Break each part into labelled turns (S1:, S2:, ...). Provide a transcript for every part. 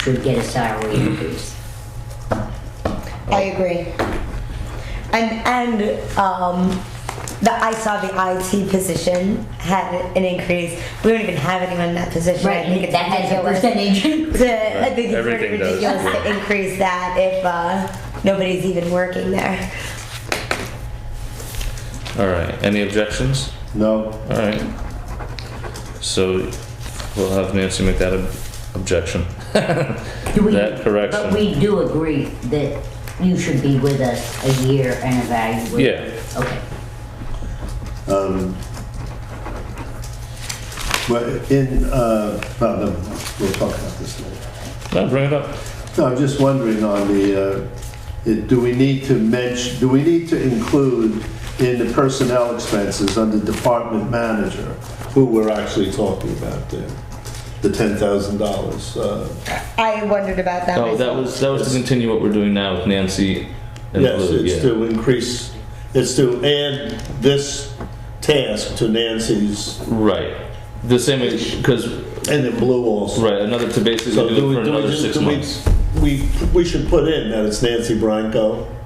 S1: should get a salary
S2: Mm-hmm.
S1: increase.
S3: I agree. And and um, the I saw the IT position had an increase. We don't even have anyone in that position. I think
S1: Right,
S3: it's
S1: that has a
S3: ridiculous.
S1: percentage.
S3: To, I think it's pretty
S2: Everything does,
S3: ridiculous to
S2: yeah.
S3: increase that if uh, nobody's even working there.
S2: All right, any objections?
S4: No,
S2: All right. So we'll have Nancy make that ob- objection.
S1: Do we-
S2: That correction.
S1: But we do agree that you should be with us a year and evaluate.
S2: Yeah.
S1: Okay.
S4: um, but in, uh, well, no, we'll talk about this later.
S2: No, bring it up.
S4: No, I'm just wondering on the, uh, it- do we need to mention, do we need to include in the personnel expenses under department manager, who we're actually talking about there, the $10,000? uh,
S3: I wondered about that.
S2: Oh, that
S3: myself.
S2: was, that was to continue what we're doing now with Nancy and
S4: Yes,
S2: Lou,
S4: it's
S2: yeah.
S4: to increase, it's to add this task to Nancy's,
S2: Right. The same, because,
S4: and it blew also.
S2: right, another, to basically
S4: So do
S2: do it
S4: we,
S2: for
S4: do we
S2: another
S4: just,
S2: six
S4: do we,
S2: months.
S4: we, we should put in that it's Nancy Branco?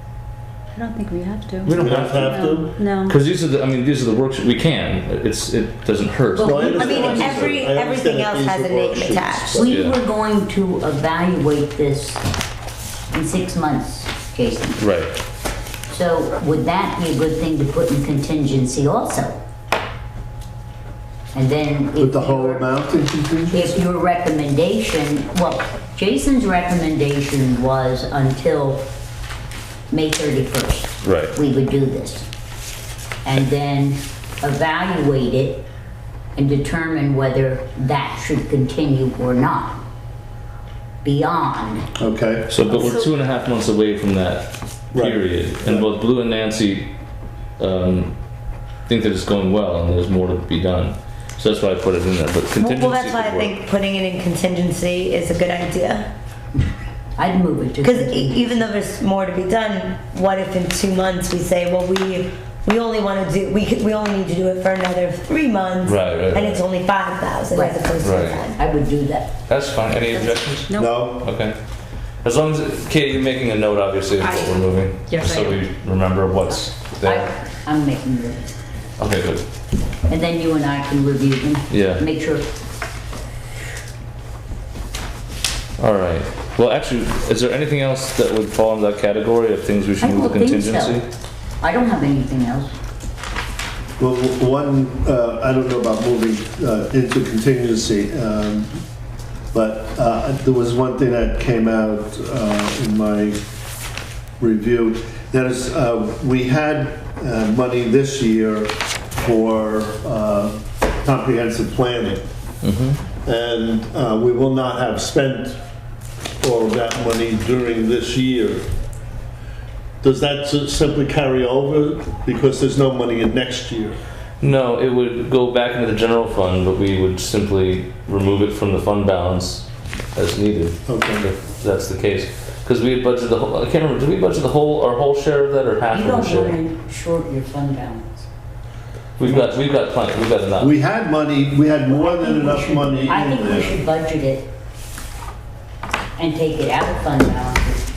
S5: I don't think we have to.
S2: We don't
S4: We don't
S2: have to.
S4: have to?
S5: No.
S2: Because Um, these are the, I mean, these are the works, we can, it's, it doesn't hurt.
S1: Well,
S4: No,
S1: I mean,
S4: understand what you're
S3: every-
S4: saying. I understand
S3: everything
S4: that
S3: else
S4: these
S3: has
S4: are
S3: a name
S4: worksheets,
S3: attached.
S4: but-
S1: We
S2: Yeah.
S1: were going to evaluate this in six months, Jason.
S2: Right.
S1: So would that be a good thing to put in contingency also? And then. if
S4: Put the whole
S1: you're-
S4: amount in contingency?
S1: If your recommendation, well, Jason's recommendation was until May 31st.
S2: Right.
S1: We would do this. And then evaluate it and determine whether that should continue or not beyond.
S4: Okay,
S2: So, but we're two and a half months away from that
S4: Right.
S2: period, and both Blue and Nancy um, think that it's going well, and there's more to be done. So that's why I put it in there. But contingency.
S3: Well, well, that's why I
S2: could work.
S3: think putting it in contingency is a good idea.
S1: I'd move it to.
S3: Because
S1: continue.
S3: e, even though there's more to be done, what if in two months we say, well, we we only want to do we could, we only need to do it for another three months,
S2: Right, right,
S3: and
S2: right.
S3: it's only five thousand
S1: Right.
S3: as opposed
S2: Right.
S3: to ten.
S1: I would do that.
S2: that's fine. Any objections?
S5: No.
S4: no,
S2: Okay. As long as Katie, you're making a note, obviously, of what
S5: I-
S2: we're moving,
S5: Yes,
S2: so
S5: I am.
S2: we remember what's there.
S1: I- I'm making the,
S2: Okay, good.
S1: and then you and I can review them.
S2: Yeah.
S1: Make sure,
S2: All right. Well, actually, is there anything else that would fall into that category of things we
S1: I
S2: should move
S1: don't
S2: to
S1: think
S2: contingency?
S1: so. I don't have anything else.
S4: well, w- one, uh, I don't know about moving, uh, into contingency, um, but, uh, there was one thing that came out, uh, in my review. That is, uh, we had uh, money this year for uh, comprehensive planning. And uh, we will not have spent all of that money during this year. Does that s- simply carry over because there's no money in next year?
S2: No, it would go back into the general fund, but we would simply remove it from the fund balance as needed,
S4: Okay.
S2: if that's the case. Because we had budgeted the whole, I can't remember, did we budget the whole, our whole share of that or half
S1: You
S2: of the
S1: don't
S2: share?
S1: want to short your fund balance.
S2: We've got, we've got plenty, we've got enough.
S4: We had money, we had more than enough money in
S1: I think we
S4: there.
S1: should budget it and take it out of fund balance.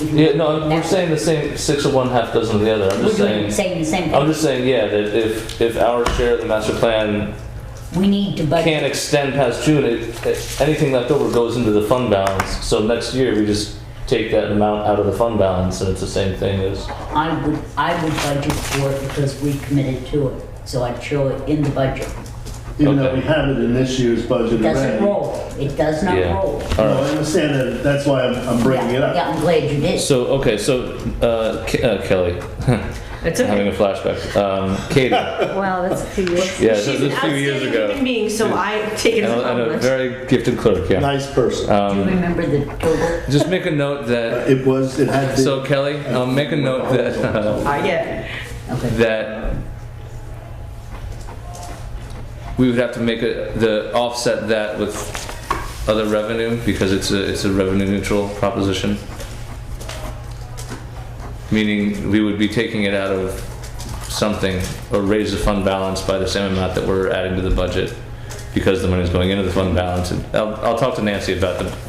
S1: If you-
S2: Yeah, no, we're saying the same, six of one, half dozen of the other, I'm
S1: We're
S2: just
S1: doing,
S2: saying,
S1: saying the same
S2: I'm
S1: thing.
S2: just saying, yeah, that if, if our share of the master plan
S1: We need to
S2: can't
S1: budget.
S2: extend past June, it, it- anything left over goes into the fund balance. So next year, we just take that amount out of the fund balance, and it's the same thing as
S1: I would, I would budget for it because we committed to it. So I'd show it in the budget.
S4: Even though we had it in this year's budget
S1: It doesn't
S4: already.
S1: roll. It does not
S2: Yeah.
S1: roll.
S2: All
S4: No, I
S2: right.
S4: understand that, that's why I'm I'm bringing it
S1: Yeah, Yeah,
S4: up.
S1: I'm glad you did.
S2: So okay, so uh, K- uh, Kelly,
S6: It's
S2: having
S6: okay.
S2: a flashback. Um, Katie, yeah,
S5: Wow, that's a few years.
S2: this
S6: She's
S2: is
S6: an
S2: a few years
S6: outstanding
S2: ago,
S6: human being, so I take it
S2: and
S6: as a
S2: a, and a
S6: compliment.
S2: very gifted clerk. Yeah. Uh,
S4: Nice person.
S1: Do
S2: Um,
S1: you remember the total?
S2: Just make a note that.
S4: It was, it had been.
S2: So Kelly, um, make a note that uh,
S6: I get it.
S1: Okay.
S2: that we would have to make a, the offset that with other revenue because it's a it's a revenue neutral proposition. Meaning we would be taking it out of something or raise the fund balance by the same amount that we're adding to the budget because the money's going into the fund balance. And I'll, I'll talk to Nancy about the